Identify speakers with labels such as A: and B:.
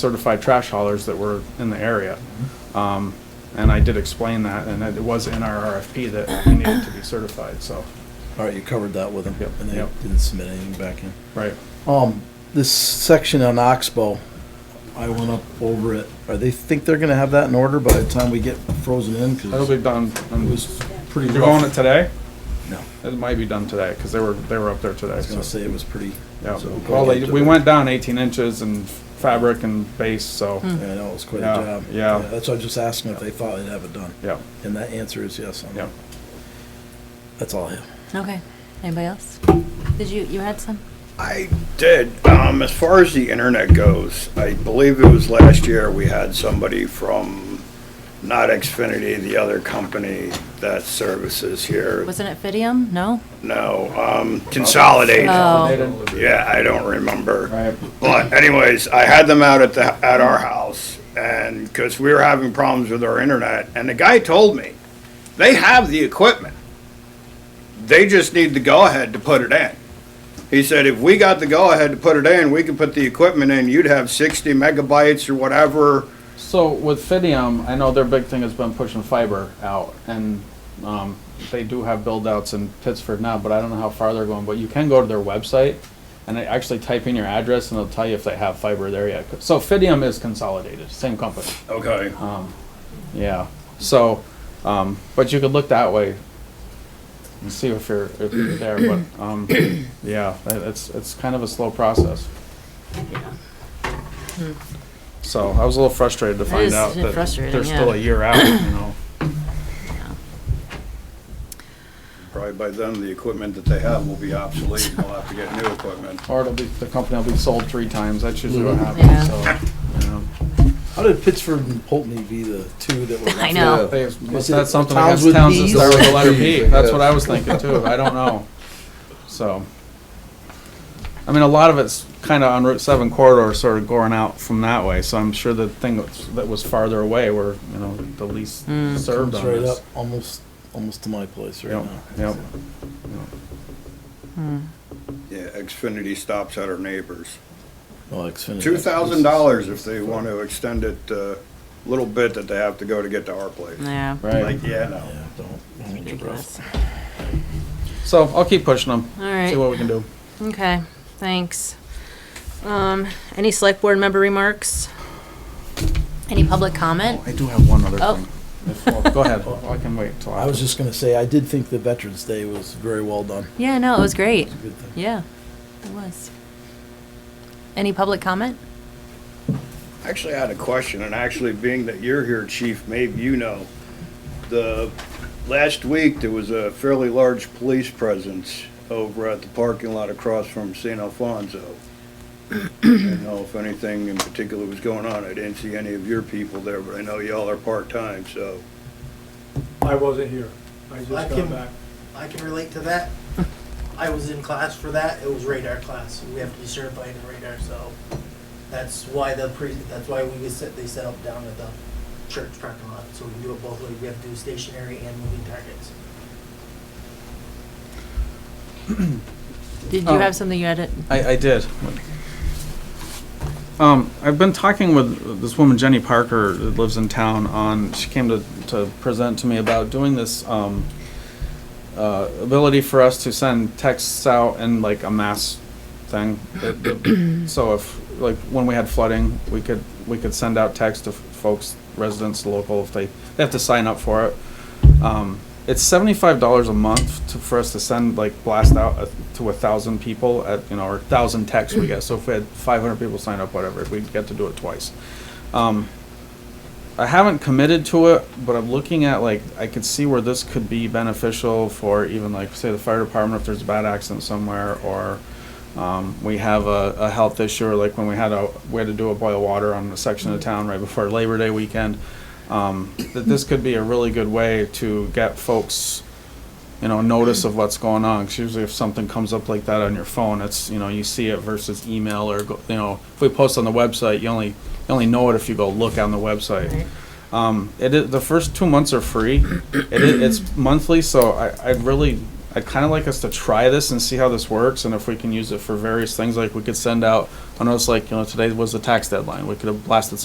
A: certified trash haulers that were in the area. Um, And I did explain that, and it was in our RFP that we needed to be certified, so,
B: All right, you covered that with them,
A: Yep,
B: and they
A: yep.
B: didn't submit anything back in.
A: right.
B: Um, this section on Oxbow, I went up over it. Are they think they're gonna have that in order by the time we get frozen in? 'Cause
A: That'll be done,
B: It
A: and
B: was pretty
A: you're going it
B: rough.
A: today?
B: No,
A: It might be done today, because they were, they were up there
B: I
A: today,
B: was gonna
A: so.
B: say it was pretty.
A: Yeah,
B: so-
A: well, they- we went down eighteen inches in fabric and base, so,
B: Yeah, I know, it was quite a
A: Yeah,
B: job.
A: yeah.
B: That's why I was just asking if they thought they'd have it done.
A: yeah,
B: And that answer is yes on
A: yeah.
B: that. That's all I have.
C: Okay, anybody else? Did you, you had some?
D: I did. Um, as far as the internet goes, I believe it was last year, we had somebody from, not Xfinity, the other company that services here.
C: Wasn't it Fidium? No?
D: No, um, Consolidate.
C: Oh.
D: Yeah, I don't remember.
A: Right.
D: But anyways, I had them out at the, at our house and, because we were having problems with our internet and the guy told me, they have the equipment. They just need the go-ahead to put it in. He said, if we got the go-ahead to put it in, we could put the equipment in, you'd have sixty megabytes or whatever.
A: So with Fidium, I know their big thing has been pushing fiber out, and um, they do have build-outs in Pittsford now, but I don't know how far they're going. But you can go to their website and they actually type in your address, and it'll tell you if they have fiber there yet. So Fidium is consolidated, same company.
D: Okay.
A: Yeah. So, um, but you could look that way and see if you're, if you're there. But um, yeah, it- it's it's kind of a slow process. So I was a little frustrated to find
C: is
A: out that
C: frustrating,
A: they're still
C: yeah.
A: a year out. You know.
D: Probably by then, the equipment that they have will be obsolete, and we'll have to get new equipment.
A: Or it'll be, the company will be sold three times. That's usually what happens.
C: Yeah.
A: So, you know.
B: How did Pittsford and Pulteney be the two that were?
C: I know.
A: They-
B: Was it
A: that's something against
B: towns with
A: towns that
B: Bs?
A: start with the letter
B: Bs,
A: B.
B: I
A: That's what
B: guess.
A: I was thinking too. I don't know. So, I mean, a lot of it's kind of on Route Seven corridor, sort of going out from that way. So I'm sure the thing that's- that was farther away were, you know, the least
C: Hmm.
A: served
B: Comes
A: on
B: right up,
A: this.
B: almost, almost to my place right
A: Yep,
B: now.
A: yep.
D: Yeah, Xfinity stops at our neighbors.
B: Well, Xfinity.
D: Two thousand dollars if they want to extend it a little bit that they have to go to get to our place.
C: Yeah.
A: Right.
D: Like, yeah, no.
B: Yeah, don't, don't hold your breath.
C: Ridiculous.
A: So I'll keep pushing them.
C: All right.
A: See what we can do.
C: Okay, thanks. Um, any select board member remarks? Any public comment?
A: I do have one other
C: Oh.
A: thing. If- well, Go ahead. I can wait till
B: I was
A: after.
B: just gonna say, I did think the Veterans Day was very well done.
C: Yeah, no, it was great.
B: Good thing.
C: Yeah, it was. Any public comment?
D: Actually, I had a question, and actually, being that you're here, chief, maybe you know. The, last week, there was a fairly large police presence over at the parking lot across from San Alfonso. I don't know if anything in particular was going on. I didn't see any of your people there, but I know y'all are part-time, so.
E: I wasn't here. I just
F: I
E: got
F: can-
E: back.
F: I can relate to that. I was in class for that. It was radar class. We have to be certified in radar, so that's why the pre, that's why we was set, they set up down at the church parking lot. So we can do it both ways. We have to do stationary and moving targets.
C: Did you
A: Oh.
C: have something you had it?
A: I, I did. Um, I've been talking with this woman, Jenny Parker, that lives in town. On she came to, to present to me about doing this um, uh, ability for us to send texts out in like a mass thing. It- it- so if like when we had flooding, we could we could send out texts to folks, residents, local, if they they have to sign up for it. Um, it's seventy-five dollars a month to, for us to send like blast out uh, to a thousand people at you know or thousand texts we get. So if we had five hundred people sign up, whatever, we'd get to do it twice. Um, I haven't committed to it, but I'm looking at like I could see where this could be beneficial for even like say the fire department if there's a bad accident somewhere or um, we have a, a health issue or like when we had a we had to do a boil water on a section of town right before Labor Day weekend. Um, that this could be a really good way to get folks, you know, notice of what's going on. 'Cause usually, if something comes up like that on your phone, it's you know you see it versus email or go, you know if we post on the website, you only you only know it if you go look on the website. Um, it is, the first two months are free. It is, it's monthly, so I, I'd really I'd kind of like us to try this and see how this works, and if we can use it for various things, like we could send out, I know it's like, you know, today was the tax deadline, we could have blasted